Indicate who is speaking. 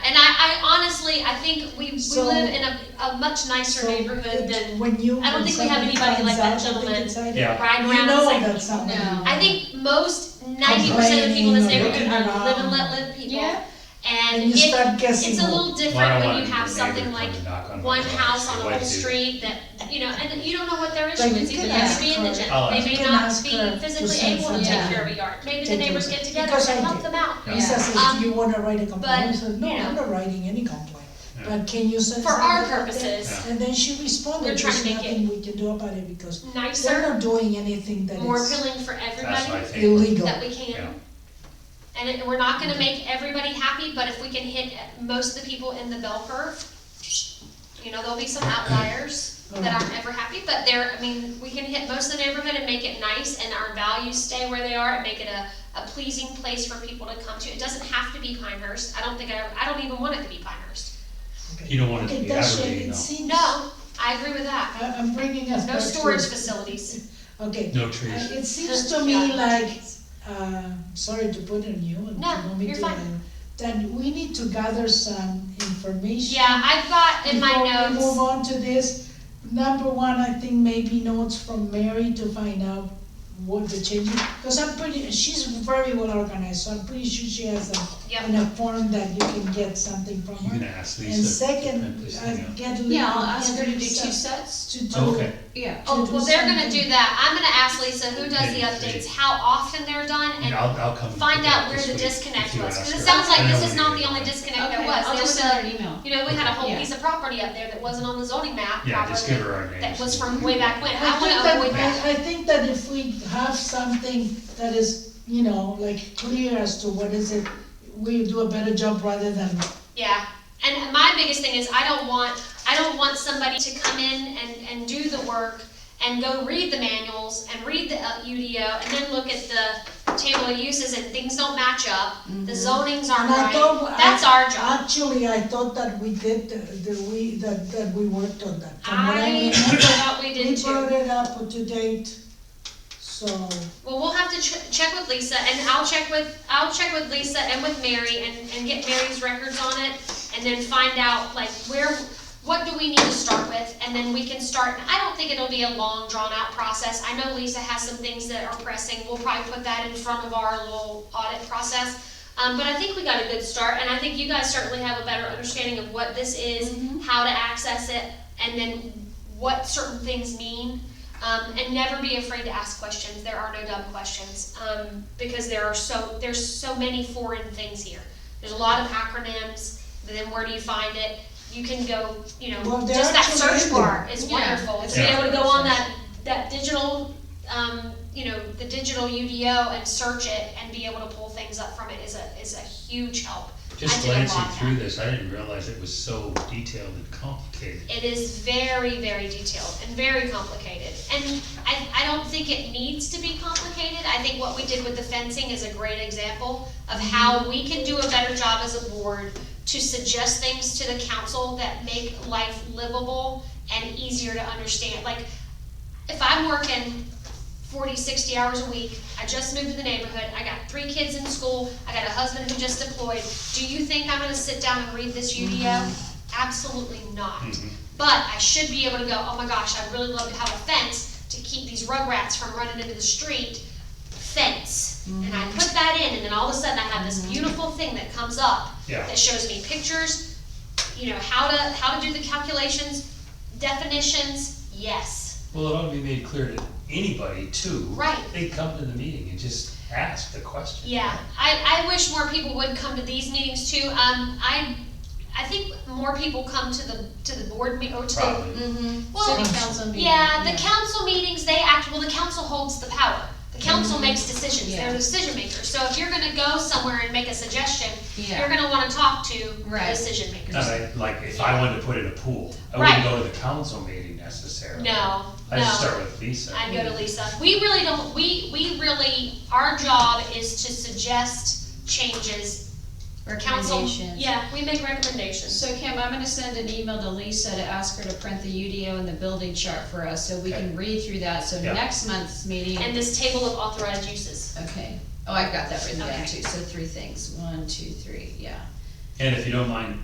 Speaker 1: think we, we
Speaker 2: So-
Speaker 1: live in a, a much nicer
Speaker 2: So
Speaker 1: neighborhood than
Speaker 2: When you.
Speaker 1: I don't
Speaker 2: when
Speaker 1: think we have
Speaker 2: somebody
Speaker 1: anybody like that
Speaker 2: finds out,
Speaker 1: gentleman.
Speaker 2: they decide-
Speaker 3: Yeah.
Speaker 1: ride
Speaker 2: You
Speaker 1: around.
Speaker 2: know
Speaker 1: like,
Speaker 2: that's not. what
Speaker 4: No.
Speaker 1: I think most ninety percent of the people in this neighborhood are live and let live people.
Speaker 4: Yeah.
Speaker 1: And
Speaker 2: And you
Speaker 1: it,
Speaker 2: start guessing.
Speaker 1: it's a little
Speaker 3: Well, I
Speaker 1: different
Speaker 3: don't
Speaker 1: when
Speaker 3: want
Speaker 1: you
Speaker 3: to
Speaker 1: have
Speaker 3: be the
Speaker 1: something
Speaker 3: neighbor
Speaker 1: like
Speaker 3: coming to knock on my
Speaker 1: one
Speaker 3: door.
Speaker 1: house on a
Speaker 3: Like,
Speaker 1: whole
Speaker 3: dude,
Speaker 1: street that, you know, and you don't know what their issue
Speaker 2: Like,
Speaker 1: is,
Speaker 2: you
Speaker 1: even
Speaker 2: could
Speaker 1: they may
Speaker 4: ask
Speaker 1: be indigent,
Speaker 3: her.
Speaker 1: they may
Speaker 2: You could
Speaker 1: not
Speaker 2: ask
Speaker 1: be
Speaker 2: her to
Speaker 1: physically
Speaker 2: send
Speaker 1: able to take
Speaker 4: something.
Speaker 1: care of a yard, maybe the
Speaker 2: Take
Speaker 1: neighbors
Speaker 2: care.
Speaker 1: get together
Speaker 2: Because
Speaker 1: and
Speaker 2: I
Speaker 1: help
Speaker 2: did.
Speaker 1: them out.
Speaker 3: Yeah.
Speaker 2: He says,
Speaker 1: Um,
Speaker 2: do you wanna write a complaint? I said, no,
Speaker 1: you
Speaker 2: I'm
Speaker 1: know.
Speaker 2: not writing any complaint,
Speaker 3: Yeah.
Speaker 2: but can you send?
Speaker 1: For our
Speaker 2: something like that?"
Speaker 1: purposes,
Speaker 2: And then she
Speaker 1: We're
Speaker 2: responded,
Speaker 1: trying
Speaker 2: there's
Speaker 1: to make it
Speaker 2: nothing we can do about it because they're
Speaker 1: nicer,
Speaker 2: not doing anything that
Speaker 1: more
Speaker 2: is
Speaker 1: appealing for
Speaker 3: That's what I
Speaker 1: everybody
Speaker 3: think.
Speaker 2: illegal.
Speaker 1: that we
Speaker 3: Yeah.
Speaker 1: can. And it- we're not gonna make everybody happy, but if we can hit most of the people in the bell curve, you know, there'll be some outliers
Speaker 2: Mm.
Speaker 1: that aren't ever happy, but there, I mean, we can hit most of the neighborhood and make it nice, and our values stay where they are, and make it a, a pleasing place for people to come to. It doesn't have to be Pinehurst, I don't think I, I don't even want it to be Pinehurst.
Speaker 3: You don't want it to
Speaker 2: Okay,
Speaker 3: be
Speaker 2: that's,
Speaker 3: aggravating
Speaker 2: it
Speaker 3: though.
Speaker 2: seems.
Speaker 1: No, I agree with that,
Speaker 2: I, I'm bringing us back
Speaker 1: no
Speaker 2: to.
Speaker 1: storage facilities.
Speaker 2: Okay,
Speaker 3: No
Speaker 2: Uh,
Speaker 3: trees.
Speaker 2: it seems to me like, uh, sorry to put on you and you
Speaker 1: No,
Speaker 2: want me
Speaker 1: you're
Speaker 2: to,
Speaker 1: fine.
Speaker 2: uh, That we need to gather some information.
Speaker 1: Yeah, I've got in my
Speaker 2: Before we move
Speaker 1: notes,
Speaker 2: on to this, number one, I think maybe notes from Mary to find out what the changes, because I'm pretty, she's very well organized, so I'm pretty sure she has a,
Speaker 1: yeah,
Speaker 2: in a form that you can get something from
Speaker 3: You
Speaker 2: her.
Speaker 3: can ask Lisa.
Speaker 2: And
Speaker 3: to
Speaker 2: second, uh,
Speaker 3: print this
Speaker 2: I
Speaker 3: thing out.
Speaker 2: get.
Speaker 4: Yeah, I'll ask her to do two
Speaker 2: Lisa
Speaker 4: sets.
Speaker 2: To do.
Speaker 3: Okay,
Speaker 4: Yeah.
Speaker 1: oh,
Speaker 2: do
Speaker 1: well, they're gonna
Speaker 2: something.
Speaker 1: do that, I'm gonna ask Lisa who does the
Speaker 3: Yeah,
Speaker 1: updates,
Speaker 3: see.
Speaker 1: how often they're done,
Speaker 3: Yeah,
Speaker 1: and
Speaker 3: I'll, I'll come.
Speaker 1: find
Speaker 3: pick it up
Speaker 1: out where
Speaker 3: this
Speaker 1: the
Speaker 3: week if
Speaker 1: disconnect
Speaker 3: you
Speaker 1: was,
Speaker 3: ask
Speaker 1: cause it
Speaker 3: her.
Speaker 1: sounds
Speaker 3: I
Speaker 1: like
Speaker 3: know
Speaker 1: this is
Speaker 3: we
Speaker 1: not
Speaker 3: did
Speaker 1: the
Speaker 3: it.
Speaker 1: only disconnect there
Speaker 4: Okay,
Speaker 1: was,
Speaker 4: I'll
Speaker 1: there
Speaker 4: just
Speaker 1: was
Speaker 4: send her
Speaker 1: a,
Speaker 4: an email.
Speaker 1: you know, we had a whole
Speaker 4: Yeah.
Speaker 1: piece of property up there that wasn't on the zoning map
Speaker 3: Yeah, just give
Speaker 1: properly,
Speaker 3: her our names.
Speaker 1: that was from way back when, I
Speaker 2: I think
Speaker 1: wanna avoid
Speaker 2: that,
Speaker 1: that.
Speaker 2: I, I think that if we have something that is, you know, like clear as to what is it, we do a better job rather than,
Speaker 1: Yeah, and my biggest thing is I don't want, I don't want somebody to come in and, and do the work and go read the manuals and read the uh, UDO and then look at the table of uses and things don't match up, the zonings aren't
Speaker 2: And I Mm-hmm. don't-
Speaker 1: right,
Speaker 2: I-
Speaker 1: that's our job.
Speaker 2: actually, I thought that we did, that we, that, that we worked on that. From what
Speaker 1: I
Speaker 2: remember,
Speaker 1: thought we
Speaker 2: We
Speaker 1: did too.
Speaker 2: brought it up to date, so,
Speaker 1: Well, we'll have to ch- check with Lisa, and I'll check with, I'll check with Lisa and with Mary, and, and get Mary's records on it, and then find out, like, where, what do we need to start with, and then we can start, I don't think it'll be a long, drawn-out process, I know Lisa has some things that are pressing, we'll probably put that in front of our little audit process, um, but I think we got a good start, and I think you guys certainly have a better understanding of what this is,
Speaker 4: Mhm.
Speaker 1: how to access it, and then what certain things mean. Um, and never be afraid to ask questions. There are no dumb questions um, because there are so there's so many foreign things here. There's a lot of acronyms. But then where do you find it? You can go, you know,
Speaker 2: Well, they're
Speaker 1: just that
Speaker 2: actually
Speaker 1: search
Speaker 2: in
Speaker 1: bar is
Speaker 4: Yeah.
Speaker 1: wonderful. To be
Speaker 3: Yeah.
Speaker 1: able to go on that that digital, um, you know, the digital UDO and search it and be able to pull things up from it is a is a huge help.
Speaker 3: Just
Speaker 1: I did a lot
Speaker 3: glancing
Speaker 1: of
Speaker 3: through
Speaker 1: that.
Speaker 3: this, I didn't realize it was so detailed and complicated.
Speaker 1: It is very, very detailed and very complicated. And I, I don't think it needs to be complicated. I think what we did with the fencing is a great example of how we can do a better job as a board to suggest things to the council that make life livable and easier to understand. Like, if I'm working 40, 60 hours a week, I just moved to the neighborhood, I got three kids in school, I got a husband who just deployed, do you think I'm gonna sit down and read this UDO? Absolutely not.
Speaker 3: Mhm.
Speaker 1: But I should be able to go, oh my gosh, I'd really love to have a fence to keep these rugrats from running into the street. Fence. And I put that in, and then all of a sudden I have this beautiful thing that comes up
Speaker 3: Yeah.
Speaker 1: that shows me pictures, you know, how to, how to do the calculations, definitions, yes.
Speaker 3: Well, it ought to be made clear to anybody too.
Speaker 1: Right.
Speaker 3: They come to the meeting and just ask the question.
Speaker 1: Yeah, I, I wish more people would come to these meetings too. Um, I, I think more people come to the, to the board me, or to the
Speaker 3: Probably.
Speaker 4: Mm-hmm.
Speaker 1: Well,
Speaker 4: City council meeting.
Speaker 1: Yeah, the council meetings, they act, well, the council holds the power. The council makes decisions, they're
Speaker 4: Yeah.
Speaker 1: the decision makers. So if you're gonna go somewhere and make a suggestion, you're
Speaker 4: Yeah.
Speaker 1: gonna wanna talk to the
Speaker 4: Right.
Speaker 1: decision makers.
Speaker 3: Not like- like, if I wanted to put in a pool, I
Speaker 1: Right.
Speaker 3: wouldn't go to the council meeting necessarily.
Speaker 1: No,
Speaker 3: I just
Speaker 1: no,
Speaker 3: start with Lisa.
Speaker 1: I'd go to Lisa. We really don't, we, we really, our job is to suggest changes. Council,
Speaker 4: Recommendations.
Speaker 1: yeah, we make recommendations.
Speaker 4: So Kim, I'm gonna send an email to Lisa to ask her to print the UDO and the building chart for us, so we
Speaker 3: Okay.
Speaker 4: can read through that, so
Speaker 3: Yeah.
Speaker 4: next month's meeting.
Speaker 1: And this table of authorized uses.
Speaker 4: Okay, oh, I've got that written down
Speaker 1: Okay.
Speaker 4: too, so three things, one, two, three, yeah.
Speaker 3: And if you don't mind